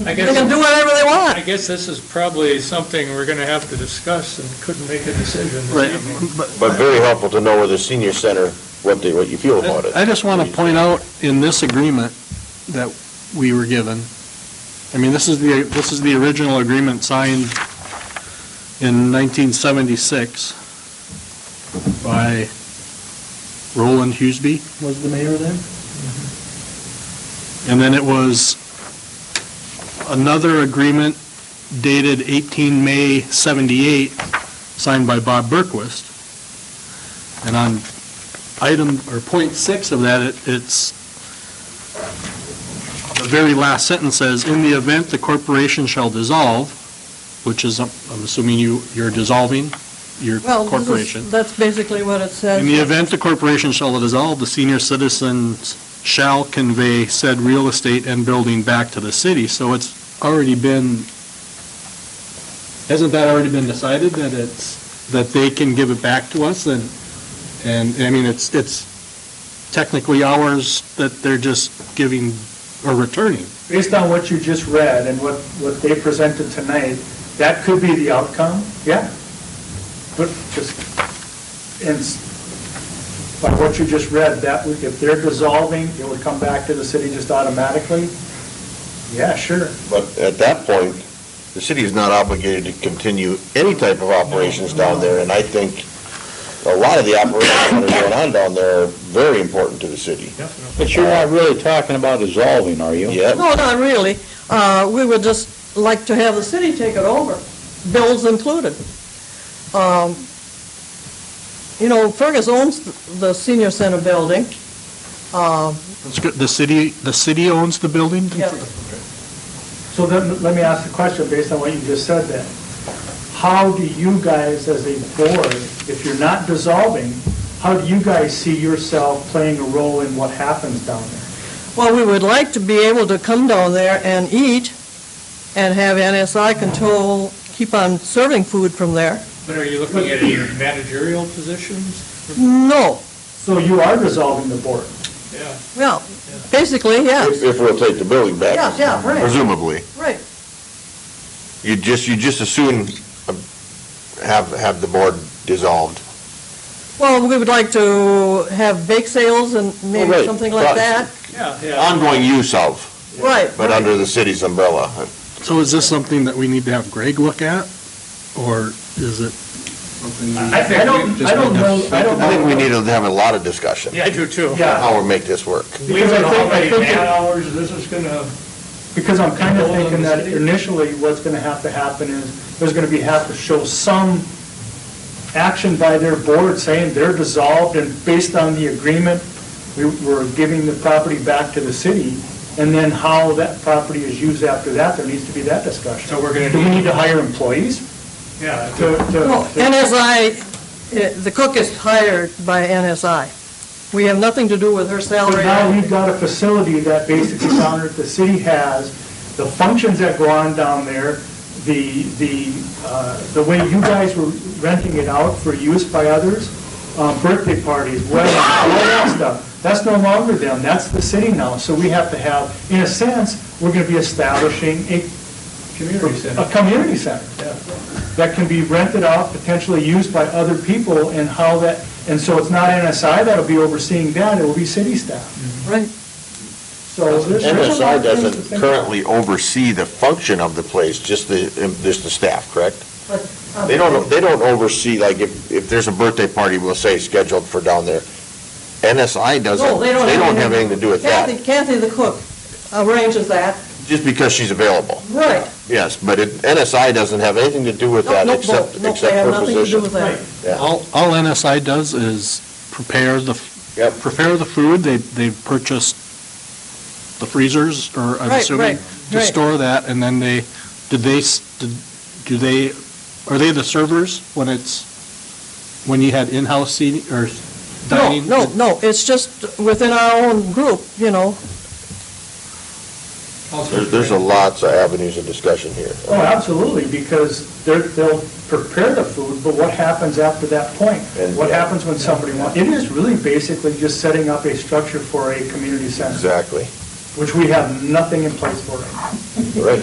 I They can guess, do whatever they I want. guess this is probably something we're going to have to discuss and couldn't make a decision this Right, evening. but But very helpful to know where the senior center, what they, what you feel about it. I just want to point out in this agreement that we were given, I mean, this is the, this is the original agreement signed in 1976 by Roland Hughesby was the mayor then? And then it was another agreement dated 18 May 78, signed by Bob Berquist. And on item, or point six of that, it- it's, the very last sentence says, "In the event the corporation shall dissolve," which is, I'm I'm assuming you, you're dissolving your Well, this is- corporation. that's basically what it says. In the event the corporation shall dissolve, the senior citizens shall convey said real estate and building back to the city. So it's already been, hasn't that already been decided that it's, that they can give it back to us? And, and, I mean, it's, it's technically ours that they're just giving or returning. Based on what you just read and what, what they presented tonight, that could be the outcome, yeah. But just, and s- by what you just read, that would, if they're dissolving, it would come back to the city just automatically? Yeah, sure. But at that point, the city is not obligated to continue any type of operations down there, and I think a lot of the operations that are going on down there are very important to the city. But you're not really talking about dissolving, are you? Yeah, No, not really. Uh, We would just like to have the city take it over, bills included. Um, You know, Fergus owns the senior center building. Um, It's good- The city, the city owns the building? yeah. So then, let me ask the question based on what you just said then. How do you guys as a board, if you're not dissolving, how do you guys see yourself playing a role in what happens down there? Well, we would like to be able to come down there and eat and have NSI control, keep on serving food from there. But are you looking at any managerial positions? No, So you are dissolving the board? Yeah. well, basically, if, yes, if we'll take the building back. Yeah, yeah, right. Presumably. right. You just, you just as soon uh, have, have the board dissolved. Well, we would like to have bake sales and Oh, maybe right. something like Right. that. Yeah, yeah. Ongoing use of, Right. but right. under the city's umbrella. So is this something that we need to have Greg look at? Or is it something? we- I I don't, I don't know, I don't know. I think we need to have a lot of discussion, I do too. Yeah, how we make this work. because I think, I think, it- hours this is going to. because I'm kind of thinking that initially what's going to have to happen is, there's going to be, have to show some action by their board saying they're dissolved and based on the agreement, we were giving the property back to the city, and then how that property is used after that, there needs to be that discussion. So we're gonna Do we need- need to hire employees Yeah. to, to? Well, to- NSI, uh, the cook is hired by NSI. We have nothing to do with her So salary. now we've got a facility that basically down there, the city has, the functions that go on down there, the, the, uh, the way you guys were renting it out for use by others, uh, birthday parties, weddings, all that stuff, that's no longer them, that's the city now. So we have to have, in a sense, we're gonna be establishing a Community a community center that can be rented out, potentially used by other people, and how that, and so it's not NSI that'll be overseeing that, it will be city staff. Right. So there's there's a lot MSI of things to doesn't think about. currently oversee the function of the place, just the, just the staff, correct? They don't, they don't oversee, like, if, if there's a birthday party, we'll say, scheduled for down there, NSI No, doesn't, they they don't. don't have anything to do with that, Kathy, Kathy the cook arranges that. just because she's available, Right. yes, but it, NSI doesn't have anything to do with No, that no, except, no, they except have her nothing to do with position. that. All, all NSI does is prepare the, Yep. prepare the food, they, they've purchased the freezers, or I'm Right, assuming, right, to right. store that, and then they, do they, s- do- do they, are they the servers when it's, when you had in-house seating, or No, dining? no, no, it's just within our own group, you know. There's, there's a lots of avenues of discussion here. Oh, absolutely, because they're, they'll prepare the food, but what happens after that point? And- What happens when somebody wants, it is really basically just setting up a structure for a community center, Exactly, which we have nothing in place for right now. right.